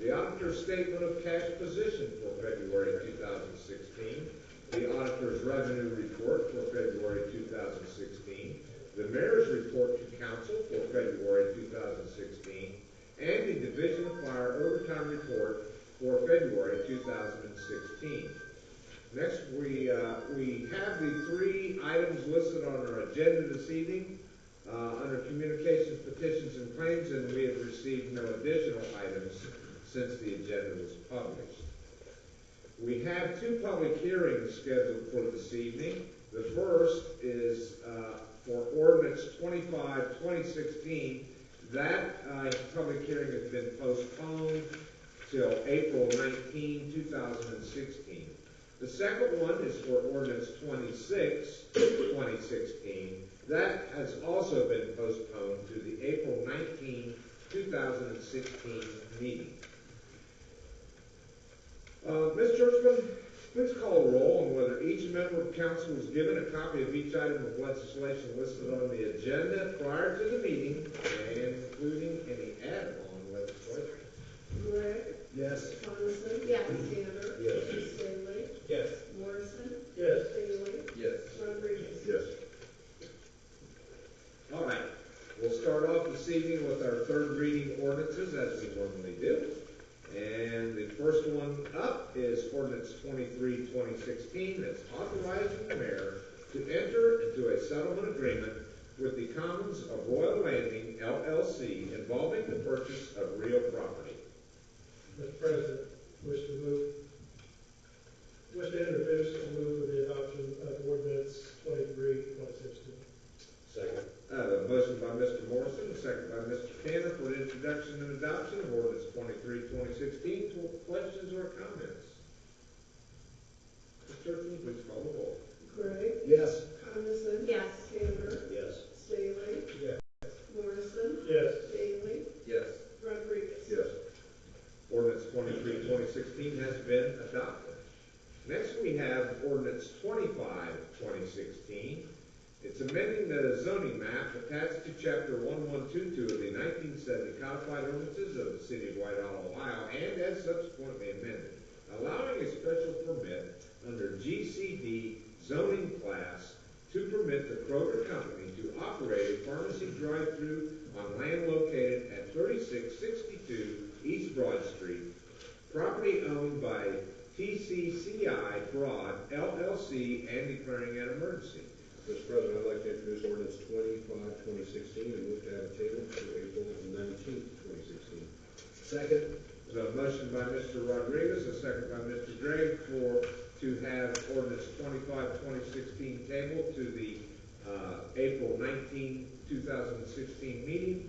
the auditor's statement of cash position for February 2016, the auditor's revenue report for February 2016, the mayor's report to council for February 2016, and the Division of Fire overtime report for February 2016. Next, we, uh, we have the three items listed on our agenda this evening, uh, under communications, petitions, and claims, and we have received no additional items since the agenda was published. We have two public hearings scheduled for this evening. The first is, uh, for ordinance 25-2016. That, uh, public hearing has been postponed till April 19, 2016. The second one is for ordinance 26, 2016. That has also been postponed to the April 19, 2016 meeting. Uh, Ms. Churchman, please call a roll on whether each member of council was given a copy of each item of legislation listed on the agenda prior to the meeting and including any add-on legislation. Gregg, Yes. Coniston. Yes. Tanner. Yes. Stanley. Yes. Morrison. Yes. Bailey. Yes. Rodriguez. Yes. All right, we'll start off this evening with our third reading ordinances as we normally do. And the first one up is ordinance 23-2016. that's authorizing the mayor to enter into a settlement agreement with the Commons of Royal Landing LLC involving the purchase of real property. Mr. President, wish to move, wish to introduce and move for the adoption of ordinance twenty-three, twenty sixteen. Second. Uh, motion by Mr. Morrison, second by Mr. Tanner for the introduction and adoption of ordinance 23-2016. Questions or comments? Mr. Churchman, please call the roll. Gregg, Yes. Coniston. Yes. Tanner. Yes. Staley. Yes. Morrison. Yes. Bailey. Yes. Rodriguez. Yes. Ordinance 23-2016 has been adopted. Next, we have ordinance 25-2016. It's amending the zoning map attached to chapter one one two two of the nineteen seventy codified ordinances of the city of Whitehall, Ohio, and as subsequently amended, allowing a special permit under GCD zoning class to permit the Kroger Company to operate a pharmacy drive-through on land located at thirty-six sixty-two East Broad Street, property owned by TCCI Broad LLC and declaring an emergency. Mr. President, I'd like to introduce ordinance twenty-five, twenty sixteen, and move to have it tabled to April nineteenth, twenty sixteen. Second. There's a motion by Mr. Rodriguez, a second by Mr. Gregg for, to have ordinance 25-2016 tabled to the, uh, April 19, 2016 meeting.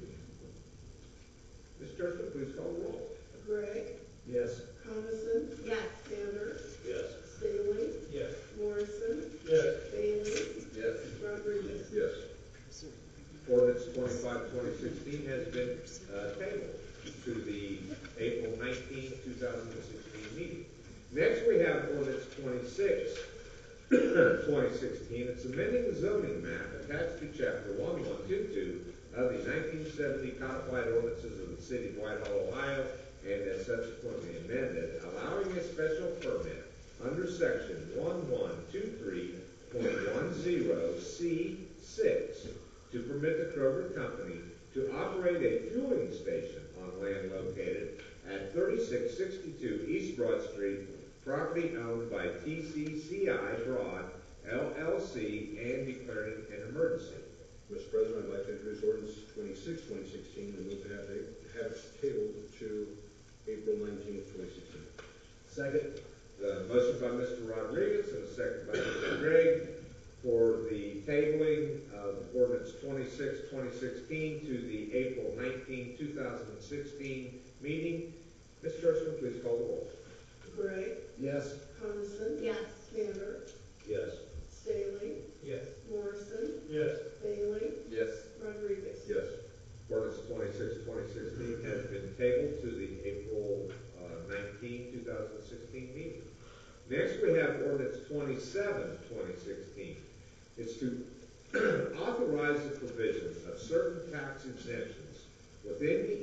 Ms. Churchman, please call the roll. Gregg, Yes. Coniston. Yes. Tanner. Yes. Staley. Yes. Morrison. Yes. Bailey. Yes. Rodriguez. Yes. Ordinance 25-2016 has been, uh, tabled to the April 19, thousand and sixteen meeting. Next, we have ordinance 26, 2016. It's amending the zoning map attached to chapter one one two two of the nineteen seventy codified ordinances of the city of Whitehall, Ohio, and as subsequently amended, allowing a special permit under section one one two three point one zero C six to permit the Kroger Company to operate a fueling station on land located at 3662 East Broad Street, property owned by TCCI Broad LLC and declaring an emergency. Mr. President, I'd like to introduce ordinance twenty-six, twenty sixteen, and move to have it, have it tabled to April nineteenth, twenty sixteen. Second. The motion by Mr. Rodriguez and a second by Mr. Gregg for the tabling of ordinance 26, 2016 to the April 19, 2016 meeting. Ms. Churchman, please call the roll. Gregg, Yes. Coniston. Yes. Tanner. Yes. Staley. Yes. Morrison. Yes. Bailey. Yes. Rodriguez. Yes. Ordinance 26, 2016 has been tabled to the April uh, 19, 2016 meeting. Next, we have ordinance 27, 2016. It's to authorize the provision of certain tax exemptions within the